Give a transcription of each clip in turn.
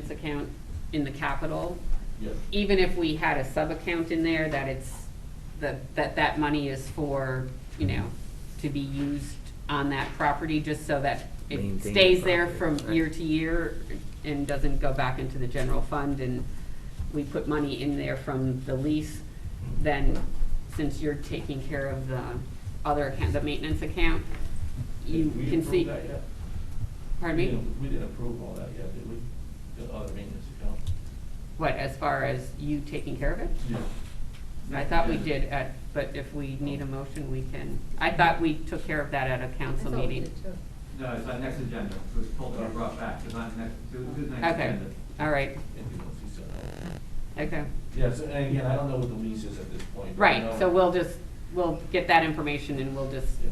This account in the capital, Yes. even if we had a sub-account in there, that it's, that, that that money is for, you know, to be used on that property, just so that it Maintain the stays there from property, right. year to year and doesn't go back into the general fund, and we put money in there from the lease, then since you're taking care of the other account, the maintenance account, you We can approved see. that yet? Pardon We me? didn't- We didn't approve all that yet, did we? The other maintenance account? What, as far as you taking care of it? Yeah. I thought we did at, but if we need a motion, we can. I thought we took care of that at a council meeting. No, it's on next agenda, it was pulled and brought back, it's on next, it was next Okay, agenda. all right, If you don't see so. okay. Yes, and again, I don't know what the lease is at this point. but I Right, know- so we'll just, we'll get that information and we'll just Yeah.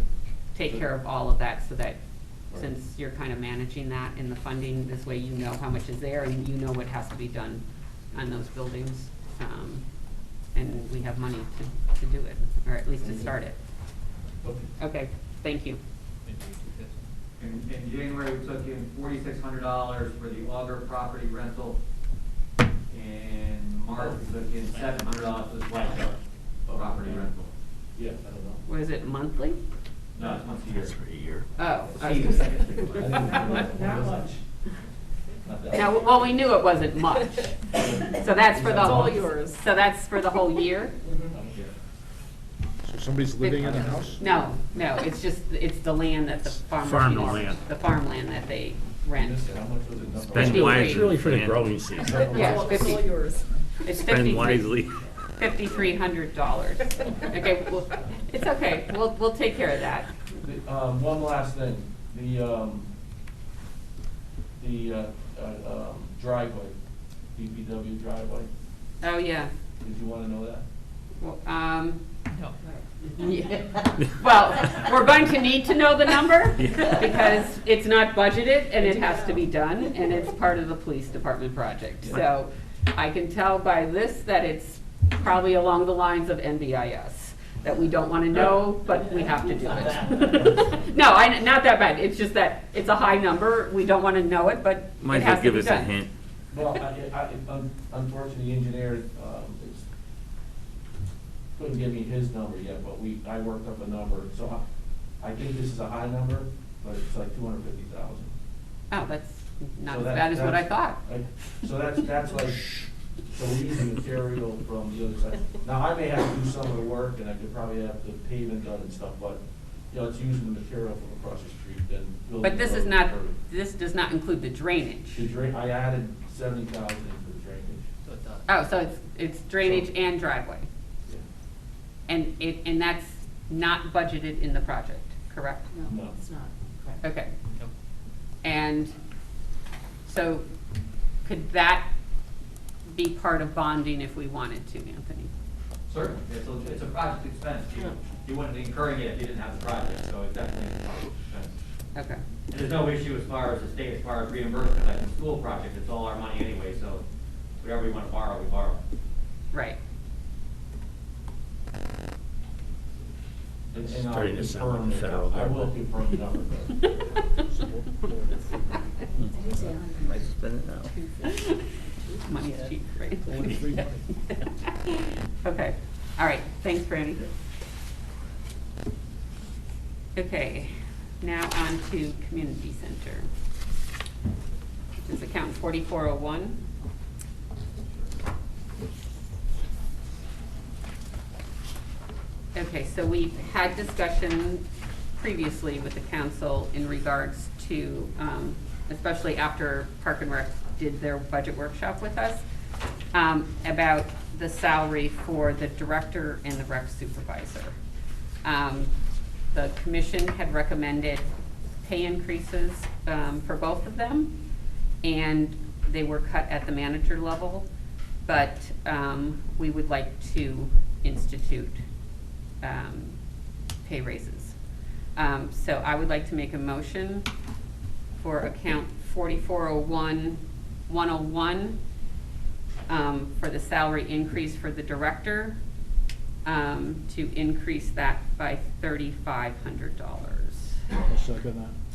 take care of all of that so that, since you're kind of managing that in the funding, this way you know how much is there and you know what has to be done on those buildings. Um, And we have money to, to do it, or at least to start it. Okay. Okay, thank you. In, in January, we took in forty-six hundred dollars for the Augur property rental. In March, we took in seven hundred dollars for the White Duck property rental. Yeah, I don't know. Was it monthly? No, it's once a year. Oh. I was gonna I didn't know. Not much. Not that Now, much. well, we knew it wasn't much, so that's for the It's all whole, yours. so that's for the whole year? Yeah. So somebody's living in a house? No, no, it's just, it's the land that the farmers. Farm the use, land. The farmland that they rent. Listen, how much was it? Number Spend one? wisely. wisely. It's really for the growing season. It's all- It's all fifty. yours. It's Spend wisely. Fifty-three hundred dollars. Okay, well, it's okay, we'll, we'll take care of that. The, Um, one last thing, the, um, the, uh, uh, um, driveway, DPW driveway, Oh, yeah. did you wanna know that? Well, Um. Yeah. Well, we're going to need to know the number Yeah. because it's not budgeted and it has to be done and it's part of the police department project. So I can tell by this that it's probably along the lines of NBIS, that we don't want to know, but we have to do it. No, I, not that bad. It's just that it's a high number. We don't want to know it, but it Might as has well to give be us a done. hint. Well, I, I, un- unfortunately, the engineer, um, is, couldn't give me his number yet, but we, I worked up a number, so I, I think this is a high number, but it's like two hundred fifty thousand. Oh, that's not as bad as what I thought. So that's, that's like, so we use the material from the other side. Now, I may have to do some of the work, and I could probably have the pavement done and stuff, but, you know, it's using the material from across the street, then building. But this the is road not, curb. this does not include the drainage. The drain, I added seventy thousand for the drainage. Oh, so it's, it's drainage and driveway, Yeah. and it, and that's not budgeted in the project, correct? No. it's not. Correct. Okay. And so could that be part of bonding if we wanted to, Anthony? Certainly, it's a, it's a project expense, you, you wouldn't be incurring it if you didn't have the project, so it definitely is a project expense. Okay, And there's no issue as far as the state, as far as reimbursement, like the school project, it's all our money anyway, so whatever we wanna borrow, we borrow. right. And- and I'll Starting to confirm sound like the- federal I will government. confirm the number, though. Might spend it now. Money's cheap, right? Only free money. Okay, all right, thanks, Brandy. Okay, now on to community center. This is account forty-four oh one. Okay, so we've had discussion previously with the council in regards to, um, especially after Park and Rec did their budget workshop with us, um, about the salary for the director and the rec supervisor. Um, The commission had recommended pay increases um, for both of them, and they were cut at the manager level, but um, we would like to institute um, pay raises. Um, So I would like to make a motion for account 4401, 101, um, for the salary increase for the director, um, to increase that by $3,500. I'll second that.